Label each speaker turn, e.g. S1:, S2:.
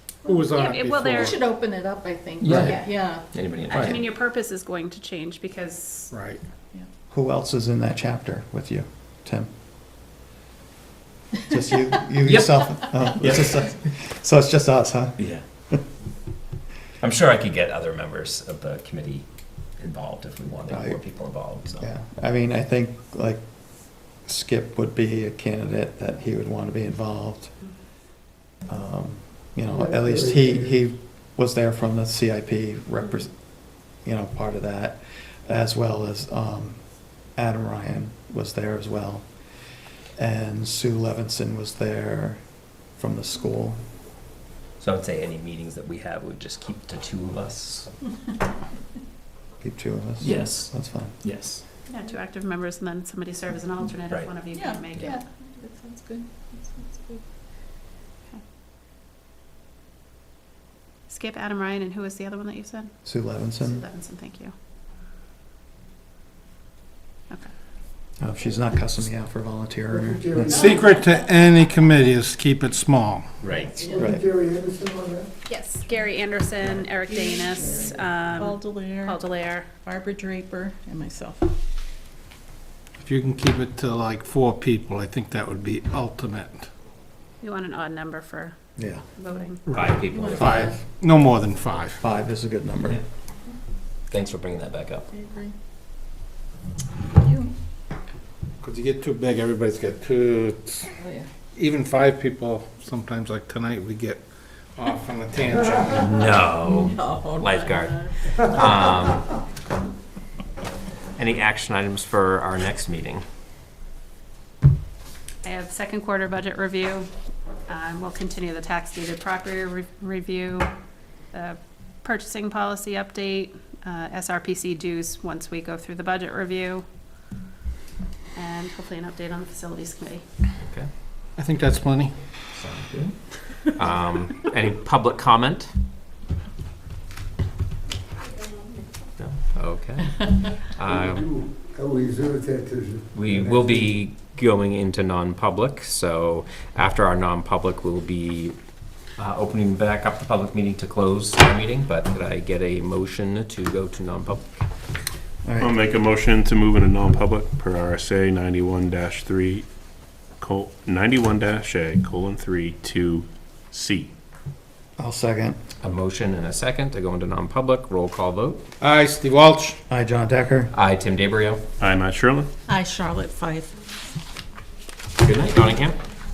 S1: who was on
S2: Yeah,
S1: it
S2: well,
S1: before.
S2: they're-
S3: We should open it up, I think.
S4: Yeah.
S1: Right.
S3: Yeah.
S5: Anybody? in-
S2: I
S4: Right.
S2: mean, your purpose is going to change because
S1: Right.
S4: Who else is in that chapter with you, Tim? Just you, you yourself? Oh, it's just us. So it's just us, huh?
S5: Yeah. I'm sure I could get other members of the committee involved if we wanted more
S4: Right.
S5: people involved, so.
S4: Yeah, I mean, I think like Skip would be a candidate that he would want to be involved. Um, You know, at least he, he was there from the CIP repres, you know, part of that, as well as um, Adam Ryan was there as well. And Sue Levinson was there from the school.
S5: So I would say any meetings that we have would just keep to two of us.
S4: Keep two of us.
S5: Yes.
S4: That's fine.
S5: Yes.
S2: yeah, two active members and then somebody serve as an alternate
S5: Right.
S2: if one of you
S3: Yeah,
S2: can make it.
S3: yeah. That sounds good. That sounds good.
S2: Skip Adam Ryan and who was the other one that you said?
S4: Sue
S2: Sue
S4: Levinson,
S2: Levinson, thank you.
S4: Oh, she's not cussing me out for volunteering.
S1: Secret to any committee is keep it small.
S5: Right.
S4: Right.
S6: Jerry Anderson on that?
S2: Yes, Gary Anderson, Eric Danis,
S7: Paul
S2: um, Paul
S7: Delaire,
S2: Delaire.
S7: Barbara Draper, and myself.
S1: If you can keep it to like four people, I think that would be ultimate.
S2: We want an odd number for
S4: Yeah,
S2: voting.
S5: Five people.
S1: Five, no more than five.
S4: five is a good number.
S5: Thanks for bringing that back up.
S7: I agree.
S1: Because you get too big, everybody's got two,
S3: Oh, yeah.
S1: even five people, sometimes like tonight, we get off on a tangent.
S5: No.
S7: Oh,
S5: Lifeguard. Um, Any action items for our next meeting?
S2: I have second quarter budget review. Um, We'll continue the tax deeded property re- review, the purchasing policy update, uh, SRPC dues once we go through the budget review, and hopefully an update on the facilities committee.
S1: I think that's plenty.
S5: Um, Any public comment? No? Okay. Um,
S6: I will reserve that to.
S5: We will be going into non-public, so after our non-public, we'll be uh, opening back up the public meeting to close our meeting, but could I get a motion to go to non-public?
S4: All right.
S8: I'll make a motion to move into non-public per RSA ninety-one dash three, col, ninety-one dash A, colon, three, two, C.
S4: I'll second.
S5: A motion and a second to go into non-public, roll call vote.
S1: Aye, Steve Walsh.
S4: Hi, John Decker.
S5: Aye, Tim DeBrio.
S8: I'm Matt Sherlin.
S7: Hi, Charlotte Fife.
S5: Good night, Nottingham.